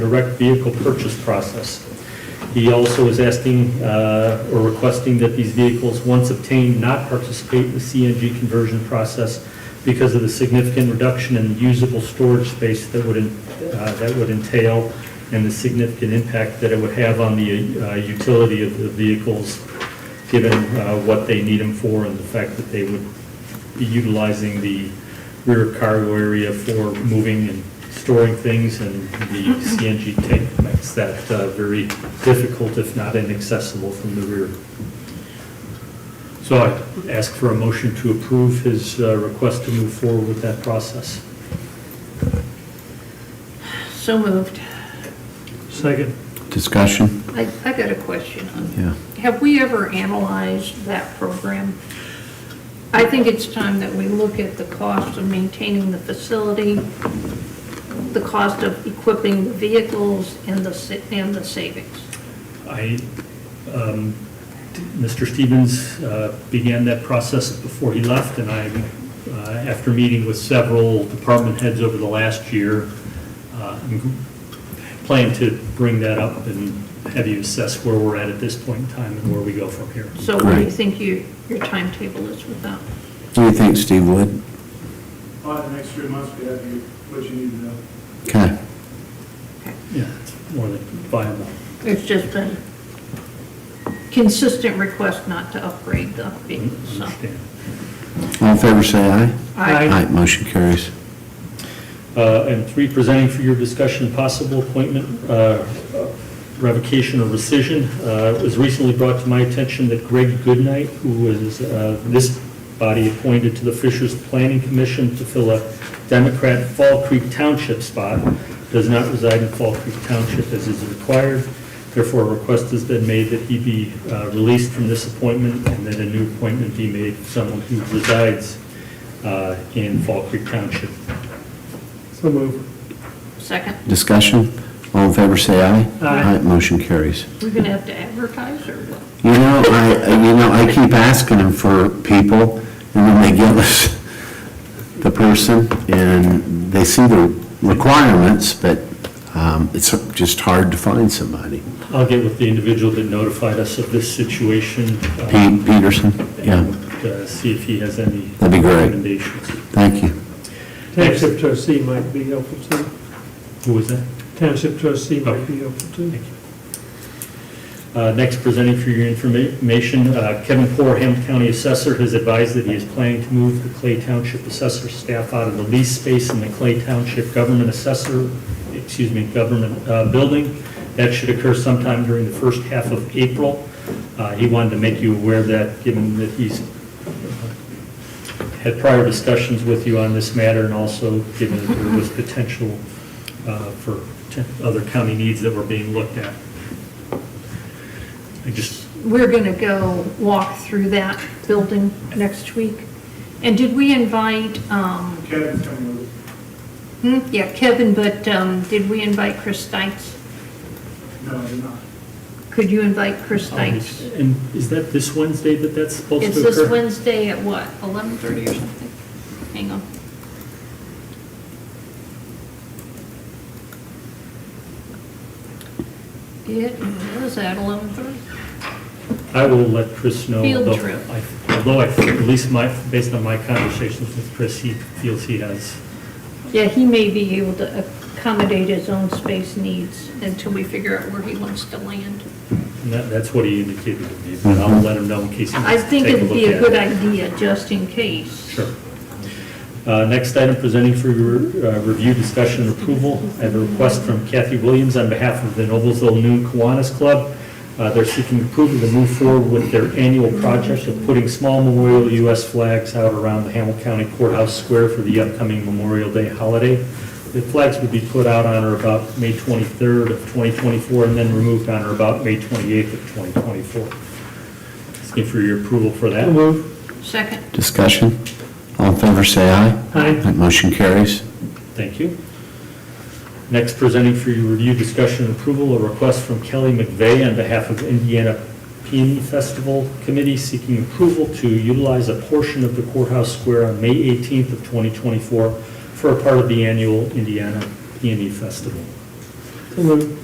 direct vehicle purchase process. He also is asking uh, or requesting that these vehicles, once obtained, not participate in the CNG conversion process because of the significant reduction in usable storage space that would, en- uh, that would entail and the significant impact that it would have on the uh, utility of the vehicles, given uh, what they need them for and the fact that they would be utilizing the rear cargo area for moving and storing things, and the CNG tank makes that uh, very difficult, if not inaccessible, from the rear. So I ask for a motion to approve his uh, request to move forward with that process. So moved. Second. Discussion? I, I got a question on, Yeah. have we ever analyzed that program? I think it's time that we look at the cost of maintaining the facility, the cost of equipping the vehicles, and the, sa- and the savings. I, um, Mr. Stevens uh, began that process before he left, and I, uh, after meeting with several department heads over the last year, uh, I'm planning to bring that up and have you assess where we're at at this point in time and where we go from here. So what do you Right. think your, your timetable is with that? What do you think, Steve Wood? By the next three months, we have you, what you need to know. Okay. Yeah, it's more than viable. It's just been consistent request not to upgrade the vehicles, so. Understand. All in favor, say aye. I- Aye. motion carries. Uh, And three, presenting for your discussion, possible appointment uh, revocation or rescission. Uh, It was recently brought to my attention that Greg Goodnight, who was uh, this body appointed to the Fishers Planning Commission to fill a Democrat Fall Creek Township spot, does not reside in Fall Creek Township as is required. Therefore, a request has been made that he be uh, released from this appointment and that a new appointment be made for someone who resides uh, in Fall Creek Township. So move. Second, Discussion? All in favor, say aye. Aye. motion carries. we're gonna have to advertise or what? You know, I, you know, I keep asking them for people, and then they give us the person, and they see the requirements, but um, it's just hard to find somebody. I'll get with the individual that notified us of this situation. uh, Pete Peterson? Yeah, And uh, see if he has any. That'd be great. Recommendations. thank you. Township trustee might be helpful too. Who was that? Township trustee might be helpful too. Thank you. Uh, Next, presenting for your information, uh, Kevin Porham, County Assessor, has advised that he is planning to move the Clay Township Assessor staff out of the lease space in the Clay Township Government Assessor, excuse me, Government uh, Building. That should occur sometime during the first half of April. Uh, He wanted to make you aware of that, given that he's had prior discussions with you on this matter, and also given that there was potential uh, for t- other county needs that were being looked at. I just, We're going to go walk through that building next week. And did we invite, um, Kevin's coming with hmm, yeah, Kevin, but um, did we invite Chris Stites? it. No, you're not. Could you invite Chris Oh, Stites? and is that this Wednesday that that's supposed to It's occur? this Wednesday at what, 11:30 or something? Hang on. It was at 11:30. I will let Chris know. Field although trip. I- Although I, at least my, based on my conversations with Chris, he feels he has, Yeah, he may be able to accommodate his own space needs until we figure out where he wants to land. and that- that's what he indicated to me, but I'll let him know in case he I wants to Mm-hmm. take think a look at it. it'd be a good idea, just in case. Sure. Uh, Next item, presenting for your uh, review, discussion, and approval. I have a request from Kathy Williams on behalf of the Noblesville Noon Kiwanis Club. Uh, They're seeking approval to move forward with their annual project of putting small memorial U.S. flags out around the Hamilton County Courthouse Square for the upcoming Memorial Day holiday. The flags would be put out on or about May 23rd of 2024 and then removed on or about May 28th of 2024. Asking for your approval for that. Second, Discussion? All in favor, say aye. Aye. Motion carries. Thank you. Next, presenting for your review, discussion, and approval, a request from Kelly McVeigh on behalf of Indiana Peony Festival Committee seeking approval to utilize a portion of the courthouse square on May 18th of 2024 for a part of the annual Indiana Peony E Festival. So moved.